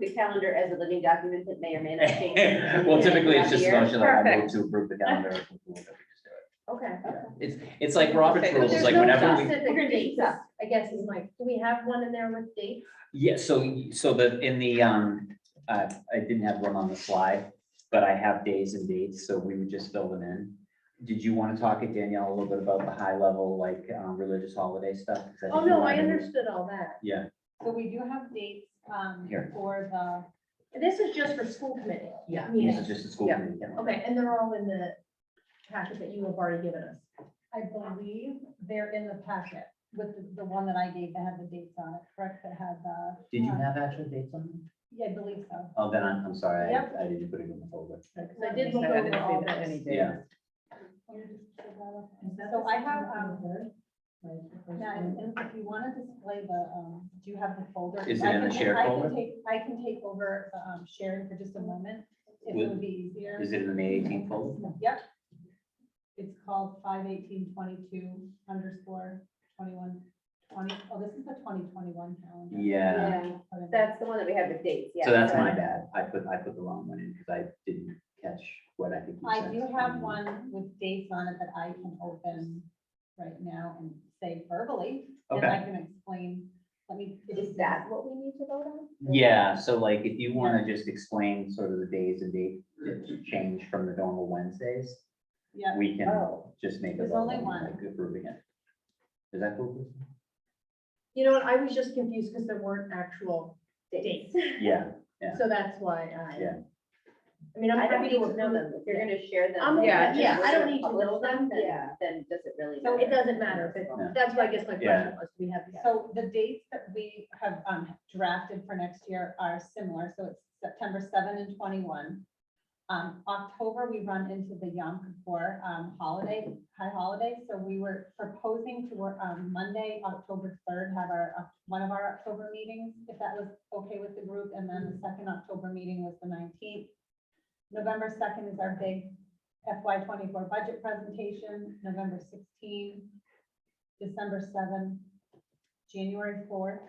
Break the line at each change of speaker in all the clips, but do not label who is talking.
the calendar as a living document that may or may not change.
Well, typically, it's just a
Year.
motion that I move
Perfect.
to approve the calendar. if we do it, we
Okay.
just do it. It's, it's like Robert's
Okay.
rules,
There's
like
no
whenever we,
specific dates, I guess, is my, do we have one in there with dates?
yeah, so, so the, in the, um, uh, I didn't have one on the slide, but I have days and dates, so we would just fill them in. Did you want to talk at Danielle a little bit about the high level, like, um, religious holiday stuff? 'Cause think
Oh,
you
no, I
wanted to-
understood all that.
Yeah,
So we do have dates, um,
Here.
for the,
This is just for school committee.
yeah,
this
Yeah,
is just a school
Yeah.
committee. calendar.
okay, and they're all in the packet that you have already given us.
I believe they're in the packet with the, the one that I gave that had the dates on it, correct, that had the.
Oh,
Did you
uh,
have actual dates on them?
Yeah, I believe so.
Oh, then I'm, I'm sorry, I,
Yep.
I didn't put it in the folder.
So I did look
I
over
didn't see
all
that any
this.
day.
Yeah.
Let me just check that out. So I have, um, now, if if you wanna display the, um, do you have the folder?
Is it
I
in the
can-
shared
I can
folder?
take- I can take over, the, um, sharing for just a moment, if it
Would-
would be easier.
Is it in the May eighteenth folder?
Yep. It's called five eighteen twenty-two underscore twenty-one twenty. Oh, this is the twenty twenty-one calendar.
Yeah.
Whatever.
That's the one that we have with dates, yeah.
uh, So that's
so-
my bad. I put, I put the wrong one in because I didn't catch what I think you
I
said. Um,
do have one with dates on it that I can open right now and say verbally, and I
Okay,
can explain, let me.
Is that what we need to vote on?
yeah, so like if you want to just explain sort of the days and date that change from the normal Wednesdays,
Yeah,
we can
Oh,
just make a
There's
vote
only
on,
one.
like, approving it. Is that cool? Kristen?
You know what, I was just confused because there weren't actual
dates.
dates,
Yeah, Yeah.
so that's why I.
Yeah.
I mean, I'm
I don't
happy
need
to
to know
approve
them. If you're gonna share them.
Um,
then
yeah,
that's
yeah,
just
I don't
for
need to
public
know them,
stuff, then-
yeah.
Then does it really
So it
matter?
doesn't matter, if
Yeah.
it- that's why I guess my
Yeah.
question was, we have. the-
so the dates that we have um, drafted for next year are similar, so it's September seven and twenty-one. Um, October, we run into the Yom Kippur um, holiday, high holiday, so we were proposing to work on Monday, October third, have our, uh, one of our October meetings, if that was okay with the group, and then the second October meeting was the nineteenth. November second is our big FY twenty-four budget presentation, November 16, December seven, January fourth,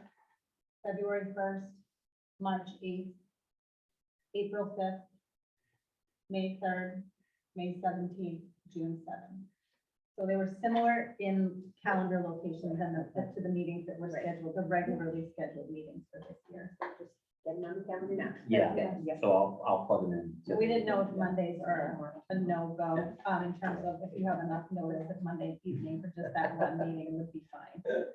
February first, March eighth, April fifth, May third, May seventeenth, June seventh. So they were similar in calendar locations and the- to the meetings that were
Right.
scheduled, the regularly scheduled meetings for this year.
Then none counted now.
Yeah.
That's good.
So I'll, I'll plug them in.
So
to-
We didn't know if Mondays are a no-go, um, in terms of if you have enough notice, if Monday evening for just that one meeting would be fine.
Which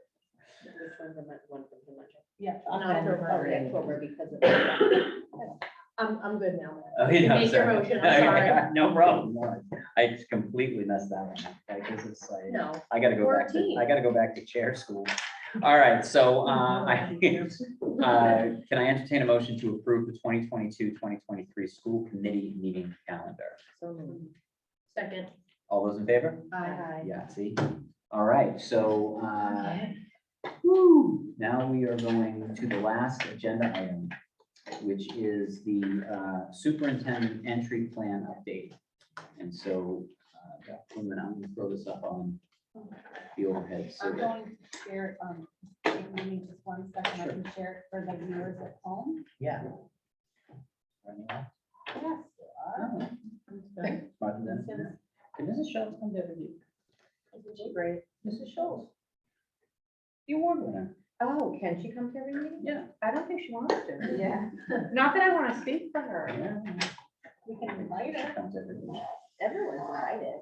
one's the mon- one from the budget?
Yeah.
Not
October.
Oh, yeah, October because of. the-
I'm, I'm good now.
Oh, yeah.
Make your
sorry.
motion, I'm sorry.
No problem. No, I just completely messed that one up. Like this is like.
No,
I gotta go back to,
14.
I gotta go back to chair school. All right, so, uh, I, uh, can I entertain a motion to approve the 2022-2023 school committee meeting calendar?
second,
All those in favor?
I,
Yeah, see? All right, so, uh, whew, now we are going to the last agenda item, which is the uh, superintendent entry plan update. And so, uh, Dr. Quinlan, I'm gonna throw this up on the overhead. so
I'm
that-
going to share, um, if you need just one second, I can share it for the viewers at home.
Yeah.
Yes, there are.
Mrs. Schultz comes every week.
Great.
Mrs. Schultz. The award winner.
Oh, can she come to every meeting?
Yeah.
I don't think she wants to. Yeah.
Not that I want to speak for her.
We can invite her.
Comes every week.
Everyone's invited.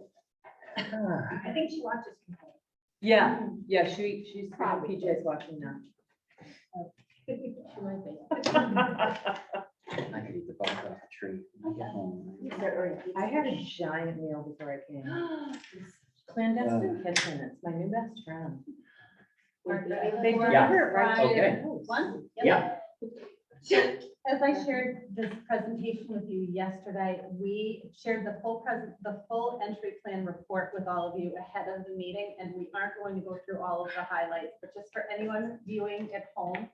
Ah.
I think she watches.
Yeah, yeah, she, she's,
Probably.
PJ's watching now.
I could eat the bark off the tree. when I get home.
I had a giant meal before I came.
Clandestine
Clandestine kitchen, it's my new best friend.
They
deliver
it right to
Okay.
One?
Yeah.
As I shared this presentation with you yesterday, we shared the full present, the full entry plan report with all of you ahead of the meeting, and we aren't going to go through all of the highlights, but just for anyone viewing at home,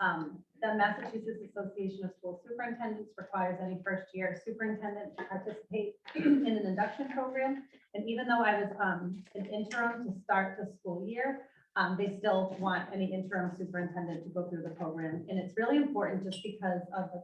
um, the Massachusetts Association of School Superintendents requires any first-year superintendent to participate in an induction program. And even though I was um, an interim to start the school year, um, they still want any interim superintendent to go through the program. And it's really important just because of the